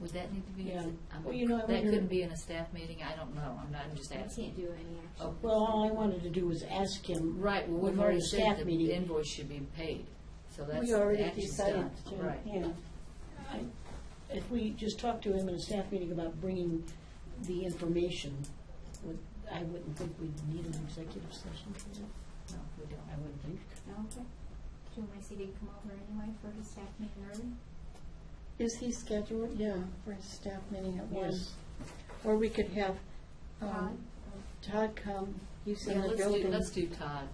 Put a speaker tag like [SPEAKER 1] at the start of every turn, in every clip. [SPEAKER 1] Would that need to be,
[SPEAKER 2] Yeah.
[SPEAKER 1] I'm-
[SPEAKER 2] Well, you know, I
[SPEAKER 1] um, that
[SPEAKER 2] wonder-
[SPEAKER 1] could be in a staff meeting, I don't know, I'm not, I'm just
[SPEAKER 3] I
[SPEAKER 1] asking.
[SPEAKER 3] can't do any action.
[SPEAKER 1] Oh.
[SPEAKER 2] Well, all I wanted to do was ask him.
[SPEAKER 1] Right, well,
[SPEAKER 2] We've
[SPEAKER 1] we've
[SPEAKER 2] already
[SPEAKER 1] already said
[SPEAKER 2] staff
[SPEAKER 1] that
[SPEAKER 2] meeting.
[SPEAKER 1] the invoice should be paid, so that's,
[SPEAKER 2] We already
[SPEAKER 1] the action's
[SPEAKER 2] decided
[SPEAKER 1] done.
[SPEAKER 2] to,
[SPEAKER 1] Right.
[SPEAKER 2] yeah. I- If we just talk to him in a staff meeting about bringing the information, would- I wouldn't think we'd need an executive session for that.
[SPEAKER 1] No, we don't.
[SPEAKER 2] I wouldn't think.
[SPEAKER 1] Oh.
[SPEAKER 3] Okay. Do you want my CD to come over anyway for his staff meeting early?
[SPEAKER 4] Is he scheduled, yeah, for his staff meeting at one?
[SPEAKER 2] Yes.
[SPEAKER 4] Or we could have um,
[SPEAKER 3] Todd?
[SPEAKER 4] Todd come, he's
[SPEAKER 1] Yeah,
[SPEAKER 4] in the
[SPEAKER 1] let's do,
[SPEAKER 4] building.
[SPEAKER 1] let's do Todd.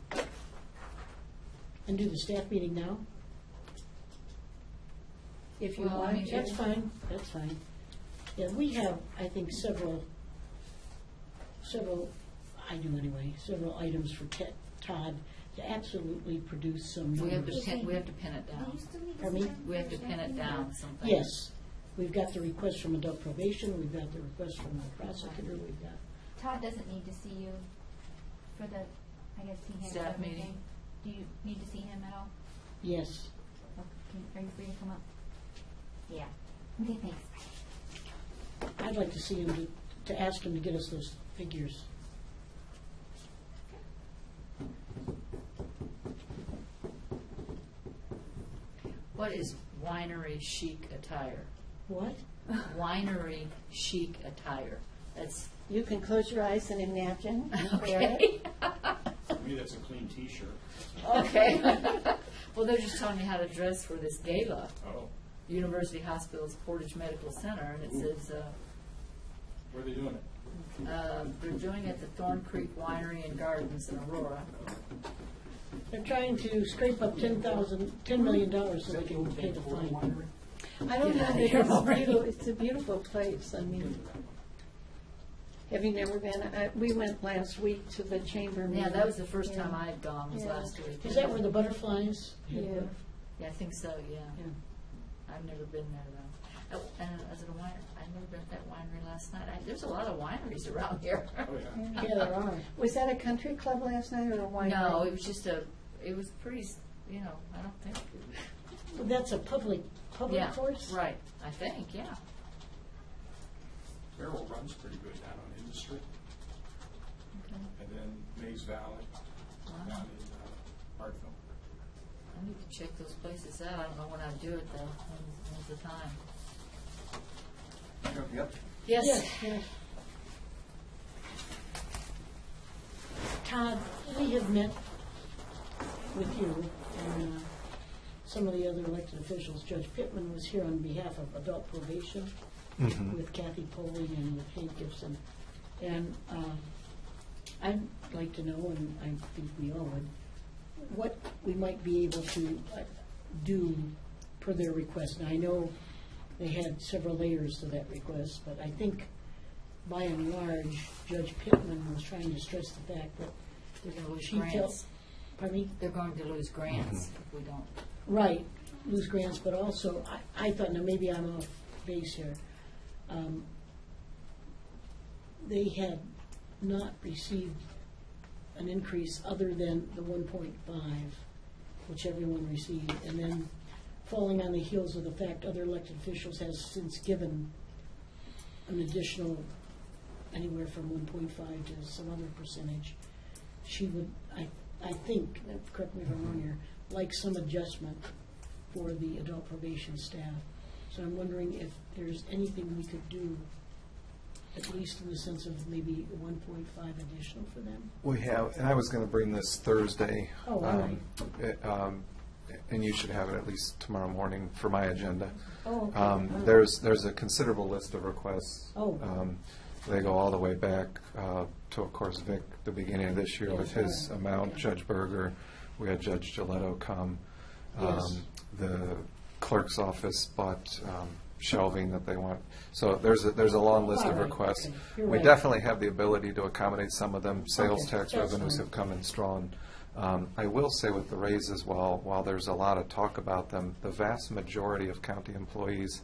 [SPEAKER 2] And do the staff meeting now? If you
[SPEAKER 1] Well, I
[SPEAKER 2] want,
[SPEAKER 1] mean,
[SPEAKER 2] that's
[SPEAKER 1] if-
[SPEAKER 2] fine, that's fine. Yeah, we have, I think, several, several, I do anyway, several items for Ted- Todd to absolutely produce some
[SPEAKER 1] We have to
[SPEAKER 2] numbers.
[SPEAKER 1] pin, we have to pin it
[SPEAKER 3] Will Oh, you
[SPEAKER 1] down.
[SPEAKER 3] still need
[SPEAKER 2] Pardon
[SPEAKER 3] this
[SPEAKER 2] me?
[SPEAKER 3] time
[SPEAKER 1] We have
[SPEAKER 3] for
[SPEAKER 1] to
[SPEAKER 3] staff
[SPEAKER 1] pin it
[SPEAKER 3] meeting?
[SPEAKER 1] down sometime.
[SPEAKER 2] Yes, we've got the request from adult probation, we've got the request from the prosecutor, we've got,
[SPEAKER 3] Todd doesn't need to see you for the, I guess he has
[SPEAKER 1] Staff
[SPEAKER 3] everything.
[SPEAKER 1] meeting.
[SPEAKER 3] Do you need to see him at all?
[SPEAKER 2] yes.
[SPEAKER 3] Or can- Are you free to come up? Yeah. Okay, thanks.
[SPEAKER 2] I'd like to see him, to- to ask him to get us those figures.
[SPEAKER 1] What is winery chic attire?
[SPEAKER 2] What?
[SPEAKER 1] Winery chic attire. That's,
[SPEAKER 4] You can close your eyes and imagine.
[SPEAKER 1] okay.
[SPEAKER 5] For me, that's a clean T-shirt.
[SPEAKER 2] Oh.
[SPEAKER 1] Okay. Well, they're just telling me how to dress for this gala,
[SPEAKER 5] Oh,
[SPEAKER 1] University Hospitals Portage Medical Center, and it says, uh,
[SPEAKER 5] where are they doing it?
[SPEAKER 1] Uh, They're doing it at the Thorn Creek Winery and Gardens in Aurora.
[SPEAKER 2] They're trying to scrape up ten thousand, ten million dollars so
[SPEAKER 5] Is
[SPEAKER 2] they
[SPEAKER 5] that the
[SPEAKER 2] can
[SPEAKER 5] old
[SPEAKER 2] pay
[SPEAKER 5] Van
[SPEAKER 2] the
[SPEAKER 5] Horn
[SPEAKER 2] fine.
[SPEAKER 5] Winery?
[SPEAKER 4] I don't
[SPEAKER 1] Get
[SPEAKER 4] know,
[SPEAKER 1] out of
[SPEAKER 4] but it's
[SPEAKER 1] here
[SPEAKER 4] a
[SPEAKER 1] already.
[SPEAKER 4] beautiful, it's a beautiful place, I mean, have you never been, I, we went last week to the chamber meeting.
[SPEAKER 1] Yeah, that was the first time
[SPEAKER 4] Yeah.
[SPEAKER 1] I had gone, was
[SPEAKER 4] Yeah.
[SPEAKER 1] last week.
[SPEAKER 2] Is that where the butterflies?
[SPEAKER 4] Yeah,
[SPEAKER 1] Yeah, I think so, yeah.
[SPEAKER 2] Yeah.
[SPEAKER 1] I've never been there, though. Oh, And as a winery, I've never been at that winery last night. I- There's a lot of wineries around here.
[SPEAKER 5] Oh, yeah.
[SPEAKER 2] Yeah, there are.
[SPEAKER 4] was that a country club last night or a winery?
[SPEAKER 1] No, it was just a, it was pretty, s- you know, I don't think,
[SPEAKER 2] Well, That's a public, public
[SPEAKER 1] yeah,
[SPEAKER 2] course?
[SPEAKER 1] right, I think, yeah.
[SPEAKER 5] Merrill runs pretty good down on Industry,
[SPEAKER 1] Okay.
[SPEAKER 5] and then Mays Valley
[SPEAKER 1] Wow.
[SPEAKER 5] down in uh, Hartville.
[SPEAKER 1] I need to check those places out. I don't know when I'd do it, though. When's- When's the time?
[SPEAKER 5] Yep.
[SPEAKER 1] Yes.
[SPEAKER 2] Yes, yes. Todd, we have met with you and uh, some of the other elected officials. Judge Pittman was here on behalf of adult probation with Kathy Poling and with Hank Gibson. And um, I'd like to know, and I think we all would, what we might be able to uh, do per their request. Now, I know they had several layers to that request, but I think by and large, Judge Pittman was trying to stress the fact that
[SPEAKER 1] They're going to lose
[SPEAKER 2] she felt,
[SPEAKER 1] grants.
[SPEAKER 2] pardon me?
[SPEAKER 1] They're going to lose grants if we don't.
[SPEAKER 2] Right, lose grants, but also, I, I thought, now maybe I'm off base here. Um, They had not received an increase other than the one point five, which everyone received, and then falling on the heels of the fact other elected officials has since given an additional anywhere from one point five to some other percentage. She would, I, I think, uh, correct me if I'm wrong here, like some adjustment for the adult probation staff. So I'm wondering if there's anything we could do, at least in the sense of maybe one point five additional for them.
[SPEAKER 6] We have, and I was going to bring this Thursday.
[SPEAKER 2] Oh, all
[SPEAKER 6] um, it, um, And you should have it at least tomorrow morning for my agenda.
[SPEAKER 2] Oh, okay.
[SPEAKER 6] Um, There's, there's a considerable list of requests.
[SPEAKER 2] Oh.
[SPEAKER 6] Um, They go all the way back uh, to, of course, Vic, the beginning of this year with his
[SPEAKER 2] Yes, right.
[SPEAKER 6] amount, Judge Berger, we had Judge Gilletto come.
[SPEAKER 2] Yes.
[SPEAKER 6] Um, The clerk's office bought um, shelving that they want. So there's, a- there's a long list
[SPEAKER 2] All
[SPEAKER 6] of
[SPEAKER 2] right,
[SPEAKER 6] requests.
[SPEAKER 2] okay. You're
[SPEAKER 6] We
[SPEAKER 2] right.
[SPEAKER 6] definitely have the ability to accommodate some of them. Sales
[SPEAKER 2] Okay,
[SPEAKER 6] tax
[SPEAKER 2] that's
[SPEAKER 6] revenues
[SPEAKER 2] fine.
[SPEAKER 6] have come in strong. Um, I will say with the raises, while, while there's a lot of talk about them, the vast majority of county employees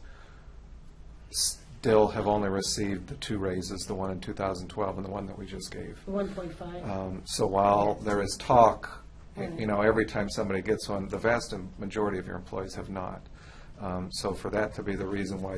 [SPEAKER 6] still have only received the two raises, the one in 2012 and the one that we just gave.
[SPEAKER 2] The one point five,
[SPEAKER 6] Um, So while there is talk, you know, every time somebody gets one, the vast majority of your employees have not. Um, So for that to be the reason why